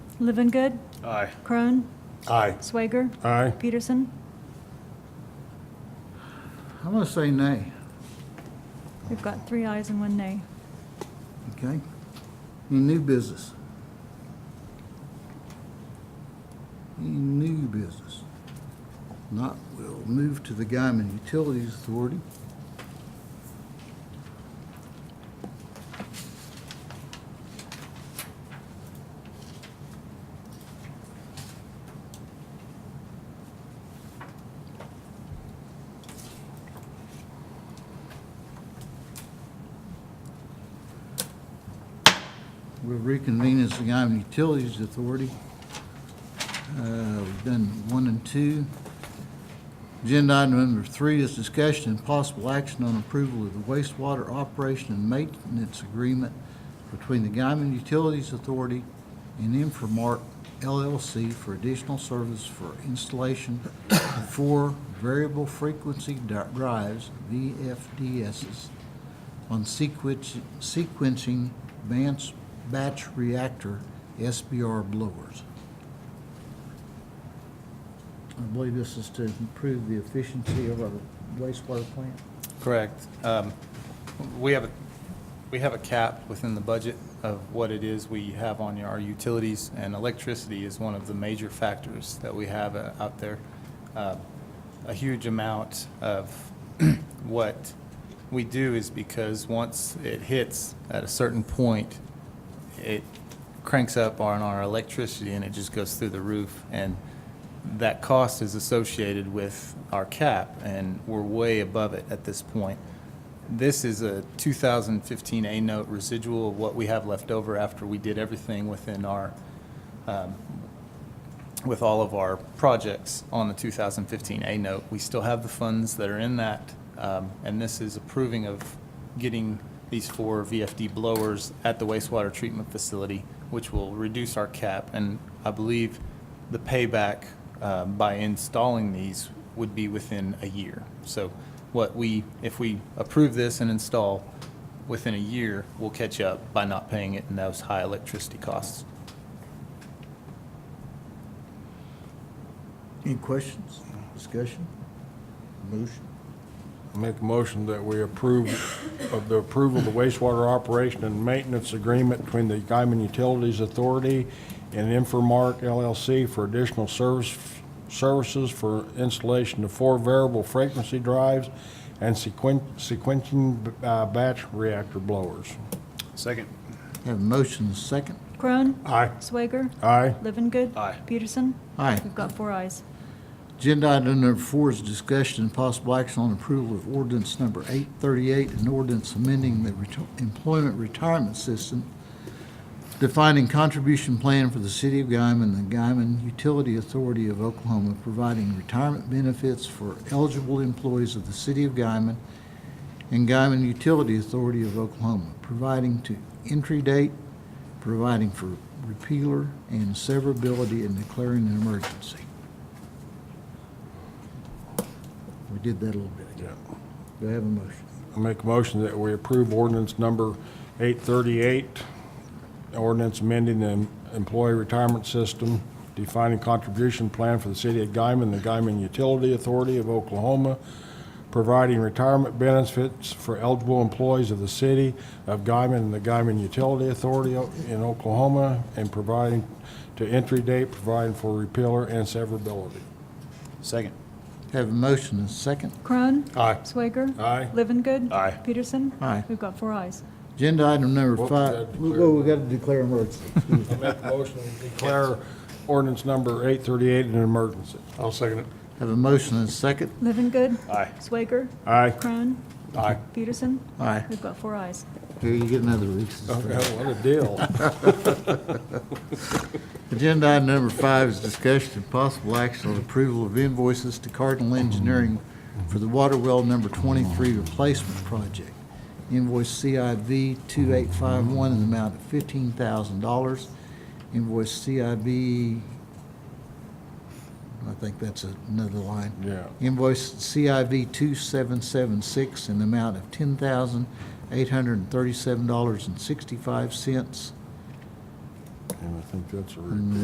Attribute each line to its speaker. Speaker 1: Living
Speaker 2: Aye.
Speaker 1: Crone,
Speaker 3: Aye.
Speaker 1: Swager,
Speaker 3: Aye.
Speaker 1: Peterson.
Speaker 4: I'm gonna say nay,
Speaker 1: We've got three ayes and one nay.
Speaker 4: okay? Any new business? Any new business? Not, we'll move to the Guyman Utilities Authority. We'll reconvene as the Guyman Utilities Authority. Uh, We've done one and two. Agenda item number three is discussion and possible action on approval of the wastewater operation and maintenance agreement between the Guyman Utilities Authority and Inframark LLC for additional service for installation of four variable frequency di- drives, VFDSs, on sequenci- sequencing advanced batch reactor SBR blowers. I believe this is to improve the efficiency of our wastewater plant.
Speaker 2: Correct. Um, We have, a we have a cap within the budget of what it is we have on our utilities, and electricity is one of the major factors that we have uh, out there. Uh, A huge amount of what we do is because once it hits at a certain point, it cranks up on our electricity and it just goes through the roof. And that cost is associated with our cap, and we're way above it at this point. This is a 2015 A note residual of what we have left over after we did everything within our, um, with all of our projects on the 2015 A note. We still have the funds that are in that, um, and this is approving of getting these four VFD blowers at the wastewater treatment facility, which will reduce our cap. And I believe the payback uh, by installing these would be within a year. So what we, if we approve this and install within a year, we'll catch up by not paying it in those high electricity costs.
Speaker 4: Any questions, discussion, motion?
Speaker 3: Make a motion that we approve of the approval of the wastewater operation and maintenance agreement between the Guyman Utilities Authority and Infomark LLC for additional service, services for installation of four variable frequency drives and sequen, sequencing uh, batch reactor blowers.
Speaker 2: Second.
Speaker 4: Have a motion and a second.
Speaker 1: Crone,
Speaker 3: Aye.
Speaker 1: Swager,
Speaker 3: Aye.
Speaker 1: Living
Speaker 2: Aye.
Speaker 1: Peterson.
Speaker 4: Aye.
Speaker 1: We've got four ayes.
Speaker 4: Agenda item number four is discussion and possible action on approval of ordinance number 838, an ordinance amending the reti- employment retirement system, defining contribution plan for the city of Guyman and the Guyman Utility Authority of Oklahoma, providing retirement benefits for eligible employees of the city of Guyman and Guyman Utility Authority of Oklahoma, providing to entry date, providing for repealer and severability, and declaring an emergency. We did that a little bit ago. Do I have a motion?
Speaker 3: I make a motion that we approve ordinance number 838, ordinance amending the employee retirement system, defining contribution plan for the city of Guyman, the Guyman Utility Authority of Oklahoma, providing retirement benefits for eligible employees of the city of Guyman and the Guyman Utility Authority o- in Oklahoma, and providing to entry date, providing for repealer and severability.
Speaker 2: Second.
Speaker 4: Have a motion and a second.
Speaker 1: Crone,
Speaker 3: Aye.
Speaker 1: Swager,
Speaker 3: Aye.
Speaker 1: Living
Speaker 2: Aye.
Speaker 1: Peterson.
Speaker 4: Aye.
Speaker 1: We've got four ayes.
Speaker 4: Agenda item number
Speaker 3: Well,
Speaker 4: five.
Speaker 3: we gotta declare-
Speaker 4: Well, we got to declare emergency.
Speaker 3: I make a motion to declare ordinance number 838 an emergency. I'll second it.
Speaker 4: Have a motion and a second.
Speaker 1: Living
Speaker 2: Aye.
Speaker 1: Swager,
Speaker 3: Aye.
Speaker 1: Crone,
Speaker 3: Aye.
Speaker 1: Peterson.
Speaker 4: Aye.
Speaker 1: We've got four ayes.
Speaker 4: Here, you get another recess.
Speaker 3: What a deal.
Speaker 4: Agenda item number five is discussion and possible action on approval of invoices to Cardinal Engineering for the water well number 23 replacement project. Invoice CIV 2851 in the amount of $15,000. Invoice CIV, I think that's another line.
Speaker 3: Yeah.
Speaker 4: Invoice CIV 2776 in the amount of $10,837.65.
Speaker 3: And I think that's a.
Speaker 4: And